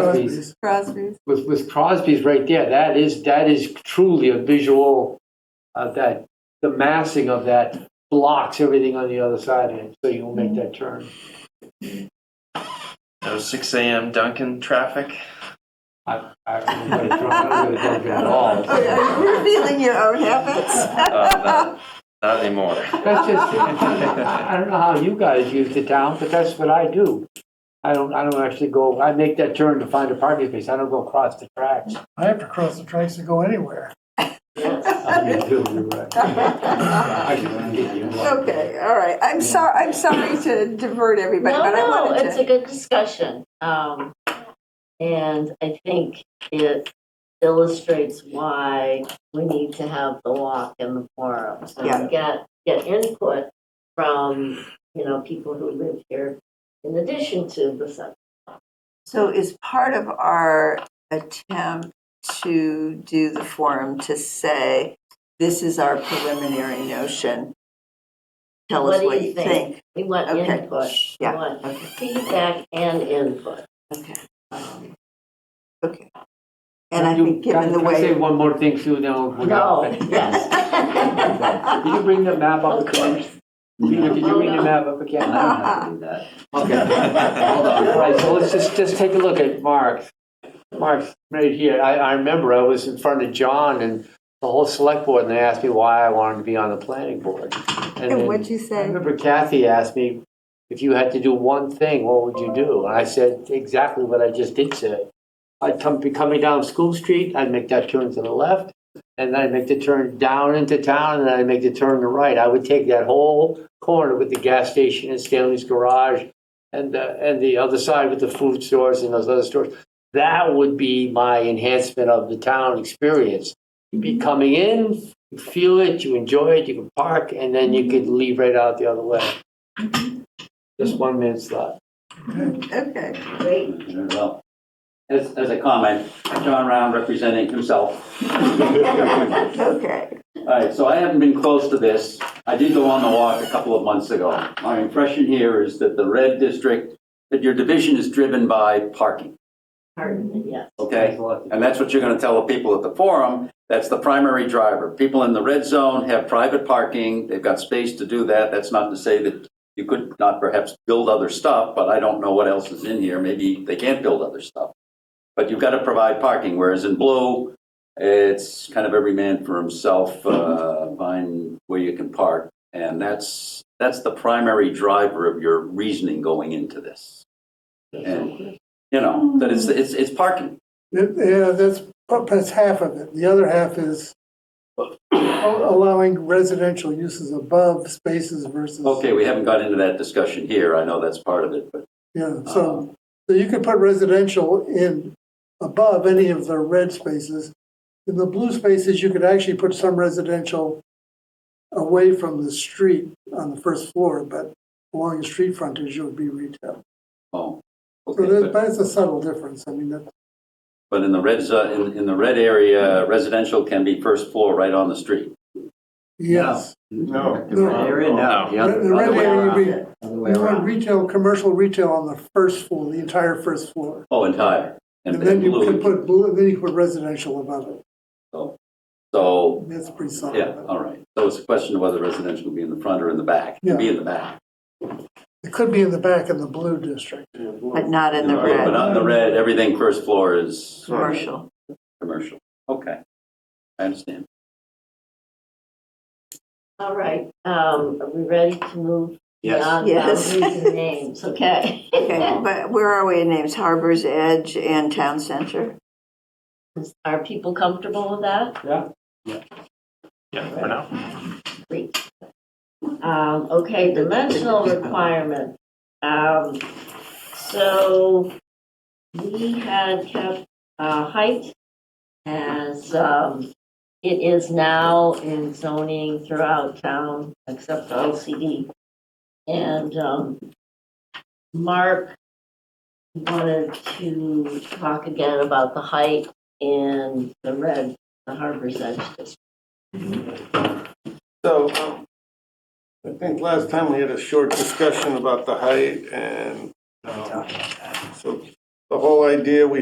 Crosby's, Crosby's. with, with Crosby's right there, that is, that is truly a visual, uh, that, the massing of that blocks everything on the other side of it, so you will make that turn. No 6 a.m. Duncan traffic. I, I, I'm gonna draw- I'm gonna do it at all. Oh, Are you revealing your own Uh, habits? no, not anymore. That's just, I don't know how you guys use the town, but that's what I do. I don't, I don't actually go, I make that turn to find a parking space, I don't go across the tracks. I have to cross the tracks to go anywhere. I do, you're right. I can get you one. Okay, all right. I'm sorry, I'm sorry to divert everybody, no, but I no, wanted it's to. a good discussion. Um, and I think it illustrates why we need to have the walk and the forum. So Yeah. get get input from you know people who live here, in addition to the sub. So is part of our attempt to do the forum to say, this is our preliminary notion? Tell us What what do you you think? think. We want Okay. input. Yeah. We want Okay. feedback and input. Okay. Um, And I You- think given can- the Can I say way. one more thing, Sue, now? we're no. done? Yes. Can you bring the map up of again? course. Peter, could you bring the Oh, no. map up again? I don't have to do that. Okay, hold on, All Hold right, so let's just, just take a look at Mark. Mark's right here, I, I remember I was in front of John and the whole select board, and they asked me why I wanted to be on the planning board. And And then- what'd you I say? remember Kathy asked me, if you had to do one thing, what would you do? And I said exactly what I just did say. I'd come, be coming down School Street, I'd make that turn to the left, and then I'd make the turn down into town, and then I'd make the turn to right. I would take that whole corner with the gas station and Stanley's Garage, and, uh, and the other side with the food stores and those other stores. That would be my enhancement of the town experience. You'd be coming in, you feel it, you enjoy it, you can park, and then you could leave right out the other way. Just one minute's thought. Okay. Great. Well, As, as a comment, John Round representing himself. Okay. All right, so I haven't been close to this. I did go on the walk a couple of months ago. My impression here is that the red district, that your division is driven by parking, Pardon me, yes. okay? And that's what you're going to tell the people at the forum. That's the primary driver. People in the red zone have private parking. They've got space to do that. That's not to say that you could not perhaps build other stuff, but I don't know what else is in here. Maybe they can't build other stuff. But you've got to provide parking, whereas in blue, it's kind of every man for himself, uh, find where you can park. And that's, that's the primary driver of your reasoning going into this. And, you know, that it's, it's, it's parking. It- Yeah, that's, but that's half of it. The other half is allowing residential uses above spaces versus. Okay, we haven't got into that discussion here. I know that's part of it, but Yeah, Uh-huh. so, so you could put residential in above any of the red spaces. In the blue spaces, you could actually put some residential away from the street on the first floor, but along the street frontage, it would be retail. oh. So okay, that, But but it's a subtle difference. I mean, that, but in the red, zo- in, in the red area, residential can be first floor right on the street. yes. No. No. The the red area, would be, you want retail, commercial retail on the first floor, the entire first floor. Oh, entire. And then you blue. could put blue, then you could put residential above it. So, That's pretty subtle. yeah, all right. So it's a question of whether residential will be in the front or in the back. It can be in the back. It could be in the back in the blue district. But not in the But red, not in the red, everything first floor is commercial. commercial. Okay. I understand. All right, um, are we ready to move beyond Yes. boundaries and names? Okay. Okay, but where are we in names? Harbor's Edge and Town Center? Are people comfortable with that? Yeah, for now. Great. Um, okay, dimensional requirement. Um, so we had kept, uh, height as, um, it is now in zoning throughout town except for LCD. And, um, Mark wanted to talk again about the height in the red, the Harbor's Edge district. So, um, I think last time we had a short discussion about the height and, um, so the whole idea, we